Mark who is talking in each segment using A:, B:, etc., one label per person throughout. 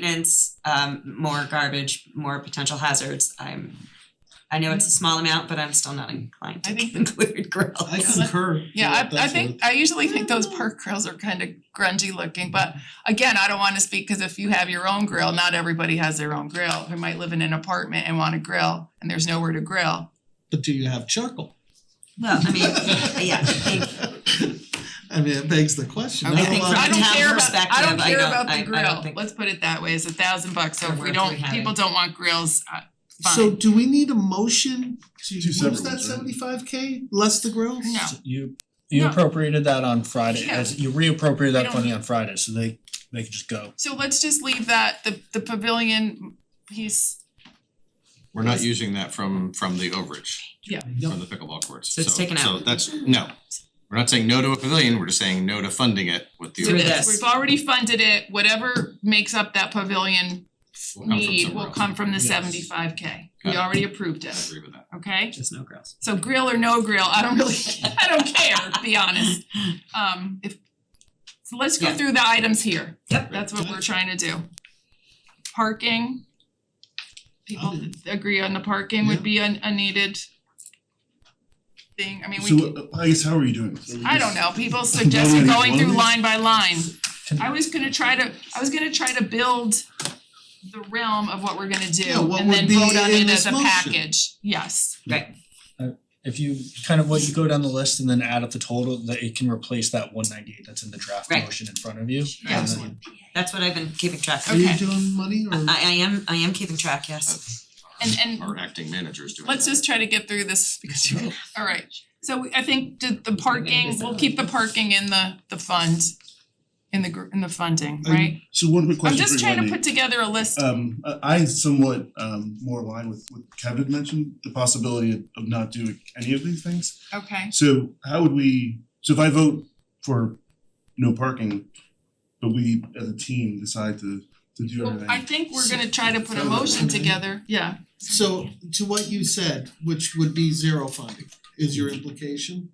A: maintenance, um, more garbage, more potential hazards, I'm, I know it's a small amount, but I'm still not inclined to
B: I think-
A: include grills.
C: I concur.
B: Yeah,
C: with
B: I I
C: that
B: think, I usually think those park grills are kind of grungy looking, but again, I don't wanna speak, cause if you have your own grill, not everybody has their own grill. Who might live in an apartment and wanna grill and there's nowhere to grill.
C: But do you have charcoal?
A: Well, I mean, yeah, I think,
C: I mean, it begs the question.
A: Okay.
C: Not
A: I
C: a
A: think
C: lot
A: from
B: I
C: of-
B: don't
A: town
B: care about, I don't
A: perspective, I
B: care
A: don't-
B: about
A: I- I
B: the
A: don't
B: grill,
A: think-
B: let's put it that way, it's a thousand bucks, so if
A: Or
B: we
A: if
B: don't,
A: we had
B: people
A: it.
B: don't want grills, uh, fine.
C: So do we need a motion to
D: Two
C: use
D: separate
C: that
D: ones, right?
C: seventy five K, less the grills?
B: No.
D: You you
B: No.
D: appropriated that on Friday,
B: Yeah.
D: as you reappropriated
B: We
D: that
B: don't-
D: funding on Friday, so they they can just go.
B: So let's just leave that, the the pavilion piece,
E: We're not using that from from the overage.
B: Yeah.
C: Yep.
E: From the pickleball courts,
A: So
E: so
A: it's taken
E: so
A: out.
E: that's, no, we're not saying no to a pavilion, we're just saying no to funding it with the
A: Through
E: overage.
A: this.
B: We've already funded it, whatever makes up that pavilion
E: Will come from
B: need
E: somewhere
B: will
E: else.
B: come from the
D: Yes.
B: seventy-five K. We
E: Got it.
B: already approved
E: I
B: it,
E: agree with that.
B: okay?
A: just no grills.
B: So grill or no grill, I don't really, I don't care, to be honest. Um, if, so let's go
A: Yeah.
B: through the items here.
A: Yep.
B: That's what we're trying to do. Parking. People
C: Okay.
B: agree on the parking would be a a needed thing, I mean, we. could-
D: So
F: uh,
D: I guess how are you doing?
B: I don't know, people suggested going through line by line.
D: Can-
B: I was gonna try to, I was gonna try to build the realm of what we're gonna
C: Yeah,
B: do
C: what
B: and then
C: would be
B: vote on
C: in
B: it
C: this
B: as a
C: motion?
B: package, yes.
D: If you kind of what you go down the list and then add up the total, that it can replace that one ninety eight that's in the draft
A: Right.
D: motion in front of you.
B: Yeah.
D: and then-
C: Excellent.
A: That's what I've been keeping track
C: Are
A: of.
C: you
B: Okay.
C: doing money or?
A: I I am, I am keeping track, yes.
B: And- and-
E: Our acting managers doing that.
B: Let's just try to get through this because you're, alright, so we- I think the the parking, we'll keep the parking in the the fund. In the gr- in the funding,
F: Um,
B: right?
F: So one quick
B: I'm
F: question
B: just
F: for
B: trying to
F: Wendy.
B: put together a list,
F: Um, I- I somewhat um more aligned with what Kevin mentioned, the possibility of- of not doing any of these things.
B: okay,
F: So how would we, so if I vote for no parking, but we as a team decide to to do
B: well,
F: everything.
B: I think we're gonna try to put a motion together, yeah,
C: So to what you said, which would be zero funding, is your implication.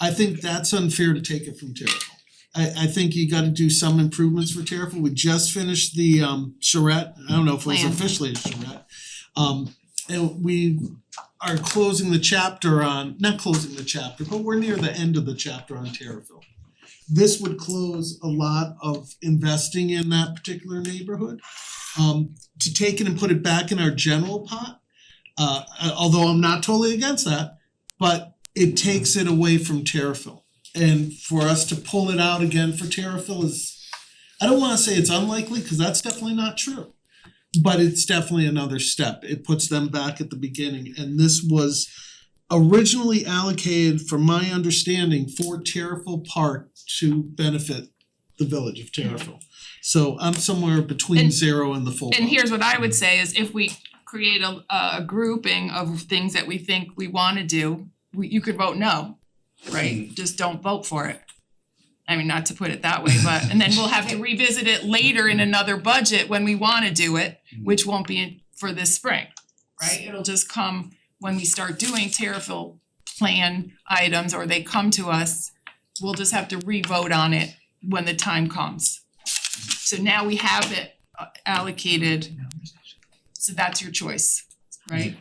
C: I think that's unfair to take it from Terriffel. I I think you gotta do some improvements for Terriffel. We just finished the um charrette, I don't know if it was
B: Plan.
C: officially a charrette. Um and we are closing the chapter on, not closing the chapter, but we're near the end of the chapter on Terriffel. This would close a lot of investing in that particular neighborhood. Um to take it and put it back in our general pot. Uh although I'm not totally against that, but it takes it away from Terrafil. And for us to pull it out again for Terrafil is, I don't wanna say it's unlikely, cause that's definitely not true. But it's definitely another step, it puts them back at the beginning, and this was originally allocated, from my understanding, for Terrafil Park to benefit the village of Terrafil. So I'm somewhere between
B: And-
C: zero and the full.
B: And
C: vote.
B: here's what I would say is if we create a a grouping of things that we think we wanna do, we you could vote no, right? Just don't vote for it. I mean, not to put it that way, but and then we'll have to revisit it later in another budget when we wanna do it, which won't be for this spring, right? It'll just come when we start doing Terrafil plan items or they come to us, we'll just have to re-vote on it when the time comes. So now we have it uh, allocated. So that's your choice, right?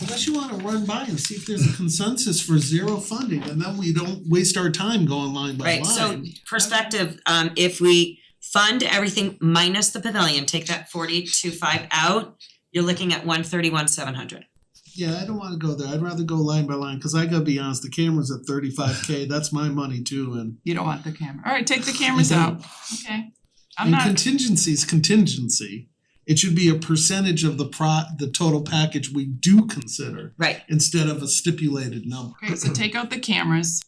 C: Unless you wanna run by and see if there's a consensus for zero funding, and then we don't waste our time going line by line.
A: Right, so perspective, um if we fund everything minus the pavilion, take that forty two five out, you're looking at one thirty one seven hundred.
C: Yeah, I don't wanna go there, I'd rather go line by line, cause I gotta be honest, the camera's at thirty-five K, that's my money too, and
B: You don't want the camera. Alright, take the cameras out, okay? I'm
C: and
B: not,
C: contingency's contingency. It should be a percentage of the pro, the total package we do consider,
A: Right,
C: instead of a stipulated number.
B: okay, so take out the cameras,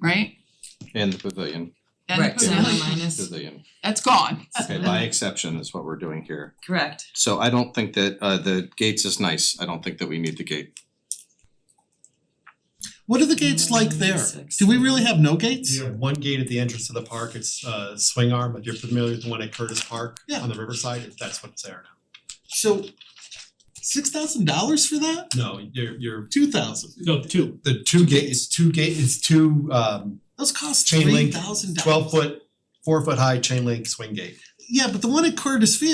B: right?
E: And the pavilion,
B: Then
A: Right,
B: put
A: so
B: in-
A: the minus-
E: pavilion,
B: That's gone.
A: Uh,
E: okay,
A: uh-huh.
E: by exception is what we're doing here.
A: correct.
E: So I don't think that uh the gates is nice, I don't think that we need the gate.
C: What are the gates like there? Do we really have no gates?
G: You have one gate at the entrance to the park, it's uh swing arm, if you're familiar with the one at Curtis Park
C: Yeah.
G: on the riverside, that's what's there
C: So, six thousand dollars for that?
G: now. No, you're you're
C: Two thousand,
D: No, two.
G: the two gate is two gate is two um
C: those cost
G: Chain
C: three
G: link,
C: thousand dollars.
G: twelve foot, four foot high chain link swing gate.
C: Yeah, but the one at Curtis Field